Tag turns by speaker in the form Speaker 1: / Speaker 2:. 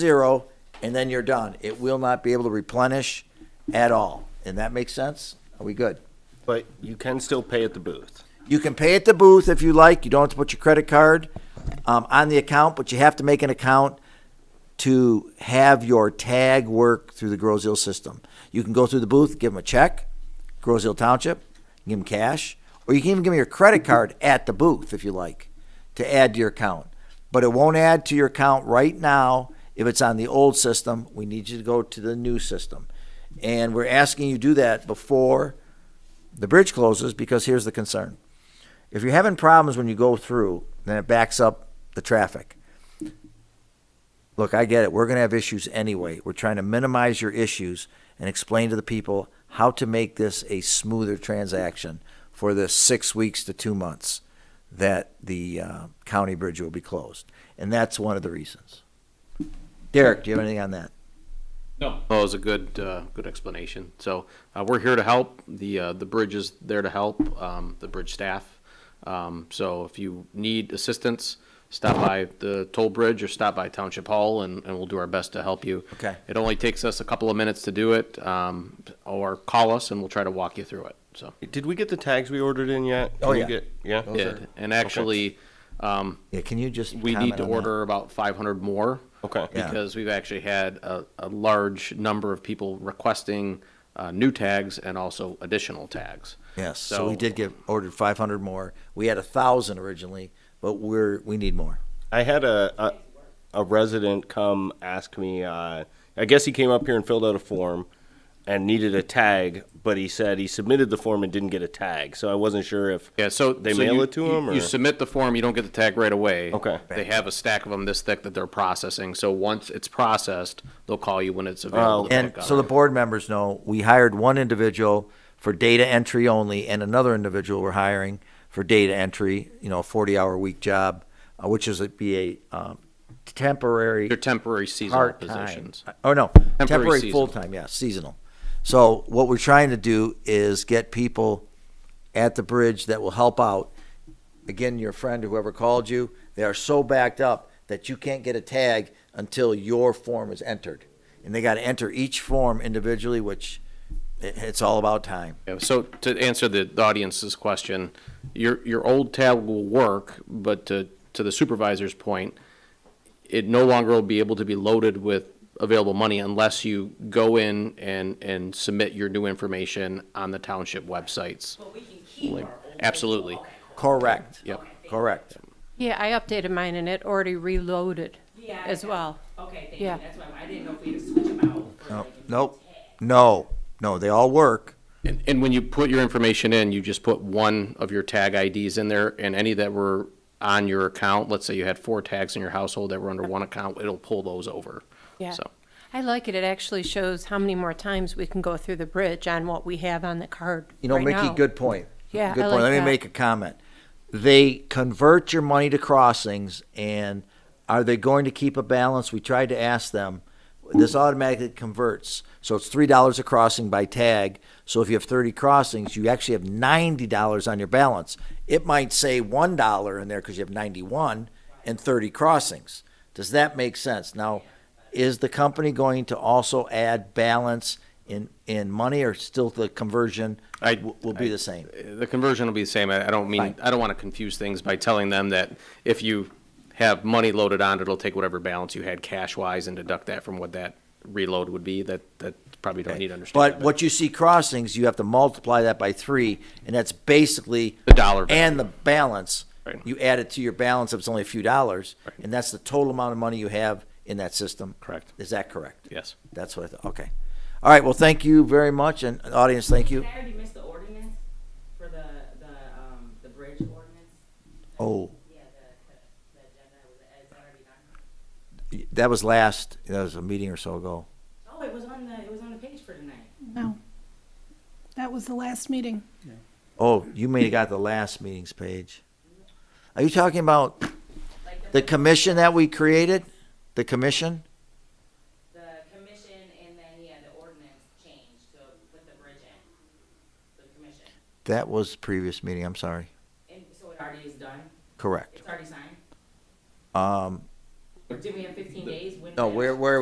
Speaker 1: zero, and then you're done. It will not be able to replenish at all. And that makes sense? Are we good?
Speaker 2: But you can still pay at the booth.
Speaker 1: You can pay at the booth if you like. You don't have to put your credit card um, on the account, but you have to make an account to have your tag work through the Grozil system. You can go through the booth, give them a check, Grozil Township, give them cash, or you can even give them your credit card at the booth if you like to add to your account. But it won't add to your account right now if it's on the old system. We need you to go to the new system. And we're asking you do that before the bridge closes because here's the concern. If you're having problems when you go through, then it backs up the traffic. Look, I get it. We're going to have issues anyway. We're trying to minimize your issues and explain to the people how to make this a smoother transaction for the six weeks to two months that the uh, county bridge will be closed. And that's one of the reasons. Derek, do you have anything on that?
Speaker 3: No. Well, it was a good, uh, good explanation. So, uh, we're here to help. The, uh, the bridge is there to help, um, the bridge staff. Um, so if you need assistance, stop by the toll bridge or stop by Township Hall and, and we'll do our best to help you.
Speaker 1: Okay.
Speaker 3: It only takes us a couple of minutes to do it, um, or call us and we'll try to walk you through it, so.
Speaker 2: Did we get the tags we ordered in yet?
Speaker 1: Oh,
Speaker 2: Can we
Speaker 1: yeah.
Speaker 2: get- Yeah?
Speaker 3: Yeah, and actually, um,
Speaker 1: Yeah, can you just?
Speaker 3: we
Speaker 1: comment
Speaker 3: need to
Speaker 1: on that?
Speaker 3: order about five hundred more.
Speaker 2: Okay.
Speaker 1: Yeah.
Speaker 3: Because we've actually had a, a large number of people requesting, uh, new tags and also additional tags.
Speaker 1: Yes, so we did get, ordered five hundred more. We had a thousand originally, but we're, we need more.
Speaker 2: I had a, a, a resident come ask me, uh, I guess he came up here and filled out a form and needed a tag, but he said he submitted the form and didn't get a tag. So I wasn't sure if
Speaker 3: Yeah, so.
Speaker 2: they
Speaker 3: so
Speaker 2: mail
Speaker 3: you-
Speaker 2: it to
Speaker 3: you-
Speaker 2: him or
Speaker 3: You submit the form, you don't get the tag right away.
Speaker 2: Okay.
Speaker 3: They have a stack of them this thick that they're processing, so once it's processed, they'll call you when it's
Speaker 2: Oh.
Speaker 3: available to
Speaker 1: And
Speaker 3: pick up.
Speaker 1: so the board members know, we hired one individual for data entry only, and another individual we're hiring for data entry, you know, a forty-hour week job, uh, which is, it'd be a, um, temporary.
Speaker 3: They're temporary seasonal
Speaker 1: part-time.
Speaker 3: positions.
Speaker 1: Oh, no, temporary
Speaker 3: seasonal.
Speaker 1: full-time, yeah, seasonal. So what we're trying to do is get people at the bridge that will help out. Again, your friend, whoever called you, they are so backed up that you can't get a tag until your form is entered. And they got to enter each form individually, which it- it's all about time.
Speaker 3: Yeah, so to answer the, the audience's question, your, your old tab will work, but to, to the supervisor's point, it no longer will be able to be loaded with available money unless you go in and, and submit your new information on the township websites.
Speaker 4: But we can keep our old.
Speaker 3: Absolutely.
Speaker 1: Correct.
Speaker 3: Yep.
Speaker 1: Correct.
Speaker 5: Yeah, I updated mine and it already reloaded
Speaker 4: Yeah, I
Speaker 5: as
Speaker 4: know.
Speaker 5: well.
Speaker 4: Okay, thank you,
Speaker 5: Yeah.
Speaker 4: that's why, I didn't know if we had to switch them out. for,
Speaker 1: No,
Speaker 4: like, a new
Speaker 1: Nope,
Speaker 4: tag.
Speaker 1: no, no, they all work.
Speaker 3: And, and when you put your information in, you just put one of your tag IDs in there and any that were on your account, let's say you had four tags in your household that were under one account, it'll pull those over.
Speaker 5: Yeah.
Speaker 3: So.
Speaker 5: I like it. It actually shows how many more times we can go through the bridge on what we have on the card.
Speaker 1: You know,
Speaker 5: right
Speaker 1: Mickey,
Speaker 5: now.
Speaker 1: good point.
Speaker 5: Yeah,
Speaker 1: good
Speaker 5: I
Speaker 1: point.
Speaker 5: like
Speaker 1: Let me
Speaker 5: that.
Speaker 1: make a comment. They convert your money to crossings, and are they going to keep a balance? We tried to ask them. This automatically converts, so it's three dollars a crossing by tag. So if you have thirty crossings, you actually have ninety dollars on your balance. It might say one dollar in there because you have ninety-one and thirty crossings. Does that make sense? Now, is the company going to also add balance in in money, or still the conversion
Speaker 3: I-
Speaker 1: w- will be the same?
Speaker 3: the conversion will be the same. I I don't mean,
Speaker 1: Fine.
Speaker 3: I don't want to confuse things by telling them that if you have money loaded on, it'll take whatever balance you had cash wise and deduct that from what that reload would be. That, that probably don't need to understand.
Speaker 1: But what you see crossings, you have to multiply that by three, and that's basically.
Speaker 3: The dollar value.
Speaker 1: And the balance.
Speaker 3: Right.
Speaker 1: You add it to your balance, if it's only a few dollars,
Speaker 3: Right.
Speaker 1: and that's the total amount of money you have in that system.
Speaker 3: Correct.
Speaker 1: Is that correct?
Speaker 3: Yes.
Speaker 1: That's what I thought, okay. All right, well, thank you very much, and uh, audience, thank you.
Speaker 4: Did I already miss the ordinance for the, the, um, the bridge ordinance?
Speaker 1: Oh,
Speaker 4: Yeah, the, the agenda, was, is that already done?
Speaker 1: that was last, that was a meeting or so ago.
Speaker 4: Oh, it was on the, it was on the page for tonight.
Speaker 6: No. That was the last meeting.
Speaker 1: Oh, you may have got the last meetings page. Are you talking about
Speaker 4: Like, the,
Speaker 1: the commission that we created? The commission?
Speaker 4: the commission and then, yeah, the ordinance changed, so with the bridge in, the commission.
Speaker 1: That was previous meeting, I'm sorry.
Speaker 4: And so it already is done,
Speaker 1: Correct.
Speaker 4: it's already signed?
Speaker 1: Um,
Speaker 7: Do we have fifteen days? When
Speaker 4: No,
Speaker 7: did-
Speaker 4: where, where are we?